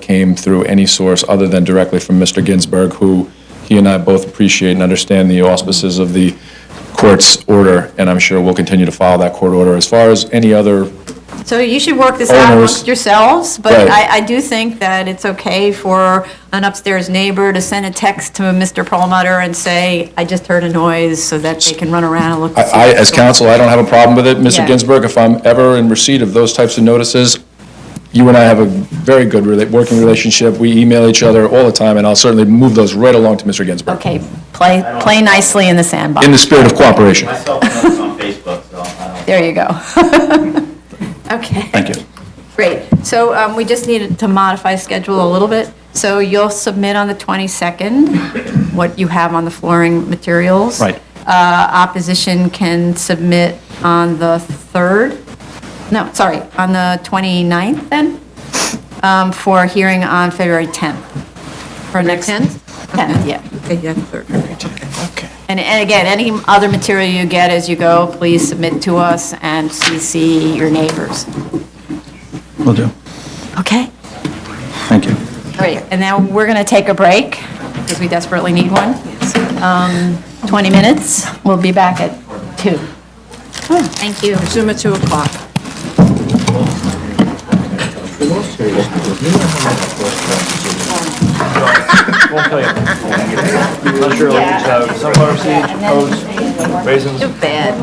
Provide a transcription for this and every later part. came through any source other than directly from Mr. Ginsburg, who he and I both appreciate and understand the auspices of the court's order, and I'm sure we'll continue to follow that court order. As far as any other, So you should work this Owners. out amongst yourselves, but Oh, Right. I, I do think that it's okay for an upstairs neighbor to send a text to Mr. Perlmutter and say, I just heard a noise, so that they can run around and look. to see I, I- what's as going on. counsel, I don't have a problem with it. Mr. Yeah. Ginsburg, if I'm ever in receipt of those types of notices, you and I have a very good rela- working relationship. We email each other all the time, and I'll certainly move those right along to Mr. Ginsburg. Okay, play, play nicely in the sandbox. In the spirit of cooperation. Myself, I'm on Facebook, so uh, I There you go. Okay. Thank you. Great. So um, we just needed to modify schedule a little bit. So you'll submit on the 22nd what you have on the flooring materials. Right. Uh, Opposition can submit on the 3rd, no, sorry, on the 29th then, um, for a hearing on February 10th. For next. 10th? 10th, yeah. Okay, yeah, 3rd. And, and again, any other material you get as you go, please submit to us and CC your neighbors. Will do. Okay? Thank you. Great, and now we're going to take a break, because we desperately need one. Um, 20 minutes, we'll be back at 2. Thank you. Zoom at 2 o'clock. Won't tell you. Not sure, like, uh, sunflower seeds, oats, raisins. Too bad.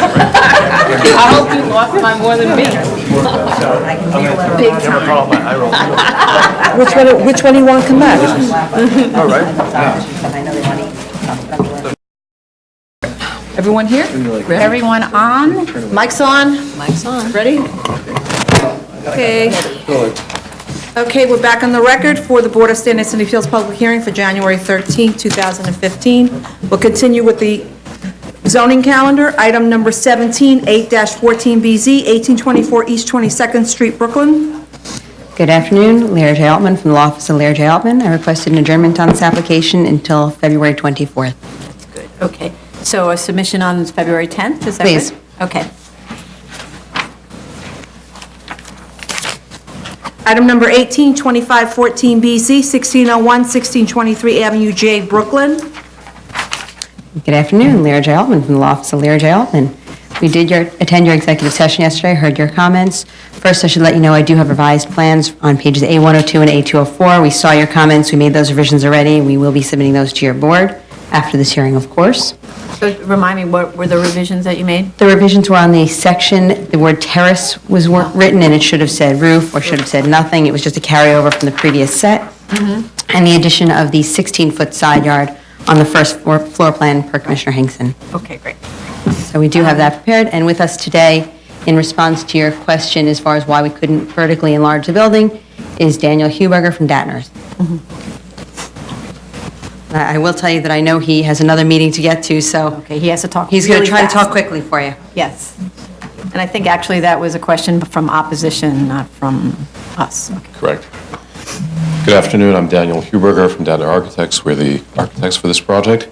I hope you lost by more than me. I'm gonna call my eye roll. Which one, which one do you want to come back? All right. Everyone here? Everyone on? Mic's on? Mic's on. Ready? Okay. Okay, we're back on the record for the Board of Standards and Appeals public hearing for January 13, 2015. We'll continue with the zoning calendar. Item number 17, 8-14BZ, 1824 East 22nd Street, Brooklyn. Good afternoon, Larry J. Altman from the Law Office of Larry J. Altman. I requested an adjournment on this application until February 24th. Okay, so a submission on February 10th, is that right? Please. Okay. Item number 18, 2514BZ, 1601, 1623 Avenue J, Brooklyn. Good afternoon, Larry J. Altman from the Law Office of Larry J. Altman. We did your, attend your executive session yesterday, heard your comments. First, I should let you know I do have revised plans on pages A102 and A204. We saw your comments, we made those revisions already, we will be submitting those to your board after this hearing, of course. So remind me, what were the revisions that you made? The revisions were on the section, the word terrace was wor- written, and it should have said roof, or should have said nothing. It was just a carryover from the previous set. Mm-hmm. And the addition of the 16-foot side yard on the first floor floor plan per Commissioner Hinkson. Okay, great. So we do have that prepared, and with us today, in response to your question as far as why we couldn't vertically enlarge the building, is Daniel Huberger from Datners. Mm-hmm. I I will tell you that I know he has another meeting to get to, so Okay, he has to talk he's going to really try to talk fast. quickly for you. Yes. And I think actually that was a question from opposition, not from us. Okay. Correct. Good afternoon, I'm Daniel Huberger from Data Architects. We're the architects for this project.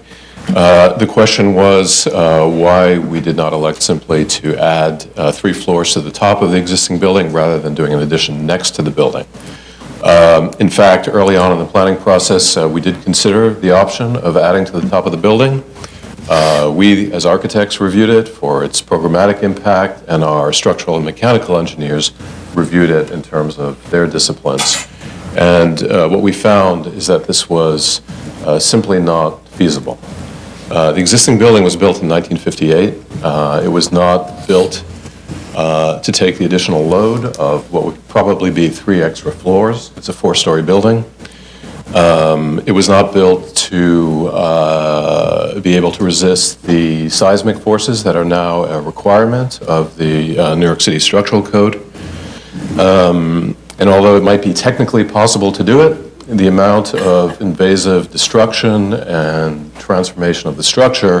Uh, The question was uh, why we did not elect simply to add uh, three floors to the top of the existing building rather than doing an addition next to the building. Um, In fact, early on in the planning process, uh, we did consider the option of adding to the top of the building. Uh, We, as architects, reviewed it for its programmatic impact, and our structural and mechanical engineers reviewed it in terms of their disciplines. And uh, what we found is that this was uh, simply not feasible. Uh, The existing building was built in 1958. Uh, It was not built uh, to take the additional load of what would probably be three extra floors. It's a four-story building. It was not built to uh, be able to resist the seismic forces that are now a requirement of the uh, New York City Structural Code. Um, And although it might be technically possible to do it, the amount of invasive destruction and transformation of the structure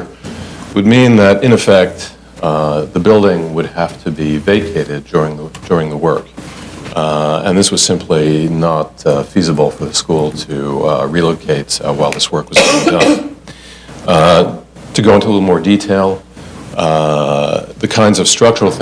would mean that, in effect, uh, the building would have to be vacated during the during the work. Uh, And this was simply not uh, feasible for the school to uh, relocate uh, while this work was being done. Uh, To go into a little more detail, uh, the kinds of structural